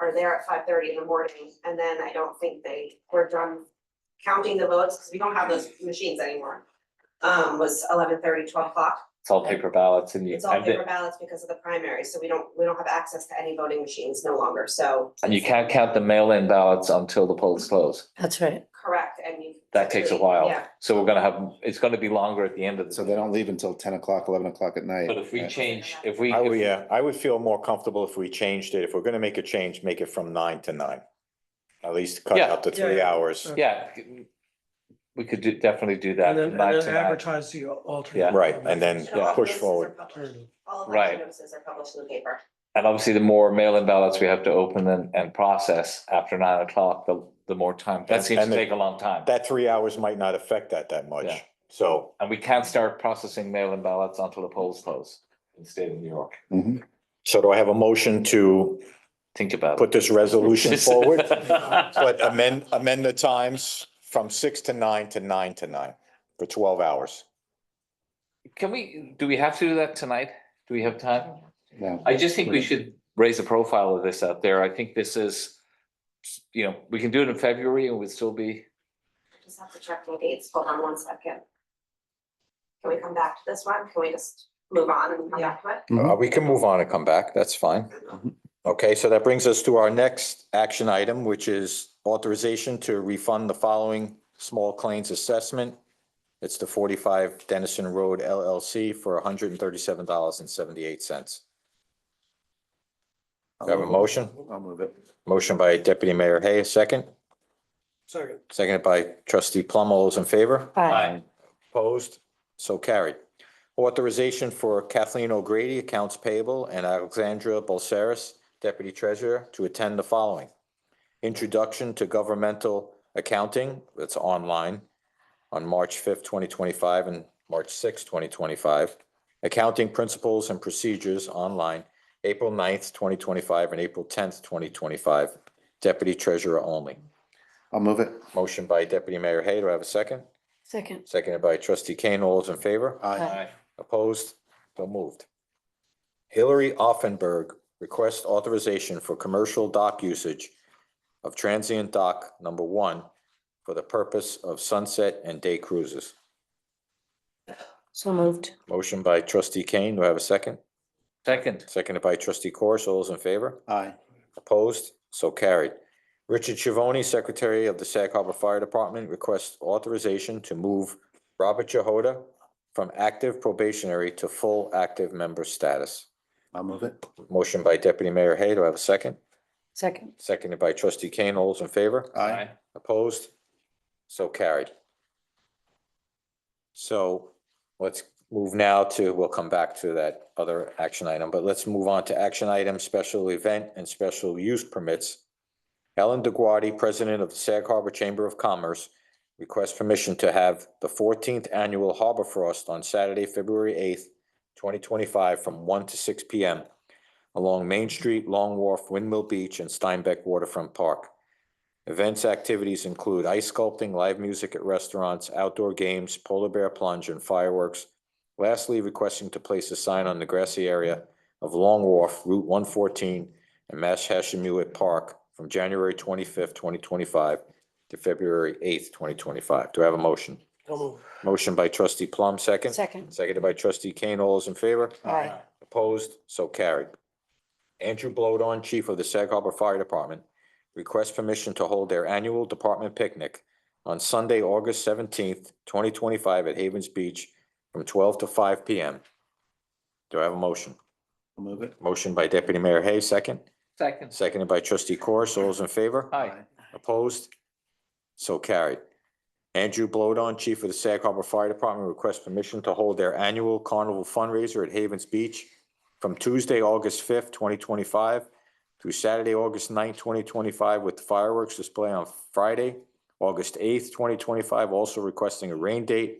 are there at five thirty in the morning, and then I don't think they were done counting the votes, because we don't have those machines anymore. Um, was 11:30, 12 o'clock. It's all paper ballots and you, It's all and paper the- ballots because of the primary, so we don't, we don't have access to any voting machines no longer, so. and you can't count the mail-in ballots until the polls close. That's right. Correct, and you. That takes a while. Yeah, So we're gonna have, it's gonna be longer at the end of the. So they don't leave until ten o'clock, eleven o'clock at night. But if we Uh, change, if we. I if would, we- Oh, yeah, I would feel more comfortable if we changed it. If we're gonna make a change, make it from nine to nine. At least cut Yeah. out the three Yeah. hours. Yeah. We could do, definitely do that. And then, from and nine then to nine. advertise the Yeah. alternate. Right, and then and all Yeah. notices push are forward. published. All of Right. the notices are published in the paper. And obviously, the more mail-in ballots we have to open and, and process after nine o'clock, the, the more time. That And- seems to and the- take a long time. That three hours might not affect that that Yeah. much. So, And we can't start processing mail-in ballots until the polls close in the state of New York. Mhm. so do I have a motion to Think about it. put this resolution forward? But forward. amend, amend the times from six to nine to nine to nine for twelve hours. Can we, do we have to do that tonight? Do we have time? No. I just think we should raise the profile of this out there. I think this is, you know, we can do it in February and we'd still be, Just have to check the dates, hold on one second. Can we come back to this one? Can we just move on and come back to it? Mhm. Uh, we can move on and come back. That's fine. Okay, so that brings us to our next action item, which is authorization to refund the following small claims assessment. It's the forty-five Dennison Road LLC for hundred and thirty-seven dollars and seventy-eight cents. Do I have a motion? I'll move it. Motion by Deputy Mayor Hay, a second. Second. Seconded by Trustee Plum. All those in favor? Aye. Opposed? So carried. Authorization for Kathleen O'Grady, Accounts Payable, and Alexandra Bolseris, Deputy Treasurer, to attend the following. Introduction to Governmental Accounting, that's online, on March fifth, twenty twenty-five, and March sixth, twenty twenty-five. Accounting Principles and Procedures, online, April 9th, twenty twenty-five, and April tenth, twenty twenty-five. Deputy Treasurer only. I'll move it. Motion by Deputy Mayor Hay, do I have a second? Second. Seconded by Trustee Kane. All those in favor? Aye. Opposed? So moved. Hillary Offenberg requests authorization for commercial dock usage of transient dock number one for the purpose of sunset and day cruises. So moved. Motion by trustee Kane. Do I have a second? Second, Seconded by trustee Corish. All those in favor? Aye. Opposed? So carried. Richard Chivoni, Secretary of the Sag Harbor Fire Department, requests authorization to move Robert Jehoda from active probationary to full active member status. I'll move it. Motion by Deputy Mayor Hay. Do I have a second? Second. Seconded by Trustee Kane. All those in favor? Aye. Opposed? So carried. So let's move now to, we'll come back to that other action item, but let's move on to action item, special event and special use permits. Helen DeGuardi, President of the Sag Harbor Chamber of Commerce, requests permission to have the fourteenth annual Harbor Frost on Saturday, February eighth, twenty twenty-five, from one to six P M along Main Street, Long Wharf, Windmill Beach, and Steinbeck Waterfront Park. Events activities include ice sculpting, live music at restaurants, outdoor games, polar bear plunge, and fireworks. Lastly, requesting to place a sign on the grassy area of Long Wharf, Route one fourteen, and Mash Hashemuit Park from January twenty-fifth, twenty twenty-five to February eighth, twenty twenty-five. Do I have a motion? So moved. Motion by trustee Plum, second. Second. Seconded by trustee Kane. All those in favor? Opposed, so carried. Andrew Blowdon, Chief of the Sag Harbor Fire Department, requests permission to hold their annual department picnic on Sunday, August seventeenth, twenty twenty-five at Havens Beach from twelve to five P M. Do I have a motion? I'll move it. Motion by Deputy Mayor Hay, second, second. seconded by Trustee Corus. All those in favor? Aye. Opposed? So carried. Andrew Blowdon, Chief of the Sag Harbor Fire Department, requests permission to hold their annual carnival fundraiser at Havens Beach from Tuesday, August fifth, twenty twenty-five through Saturday, August 9th, twenty twenty-five, with fireworks display on Friday, August eighth, twenty twenty-five, also requesting a rain date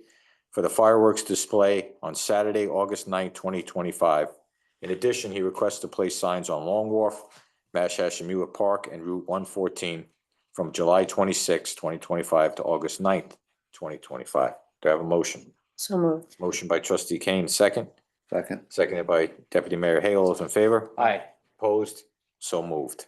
for the fireworks display on Saturday, August 9th, twenty twenty-five. In addition, he requests to place signs on Long Wharf, Mash Hashemua Park, and Route one fourteen from July 26, 2025 to August 9th, 2025. Do I have a motion? So moved. Motion by trustee Kane, second, Second. seconded by deputy mayor Hale. All those in favor? Aye. Opposed? So moved.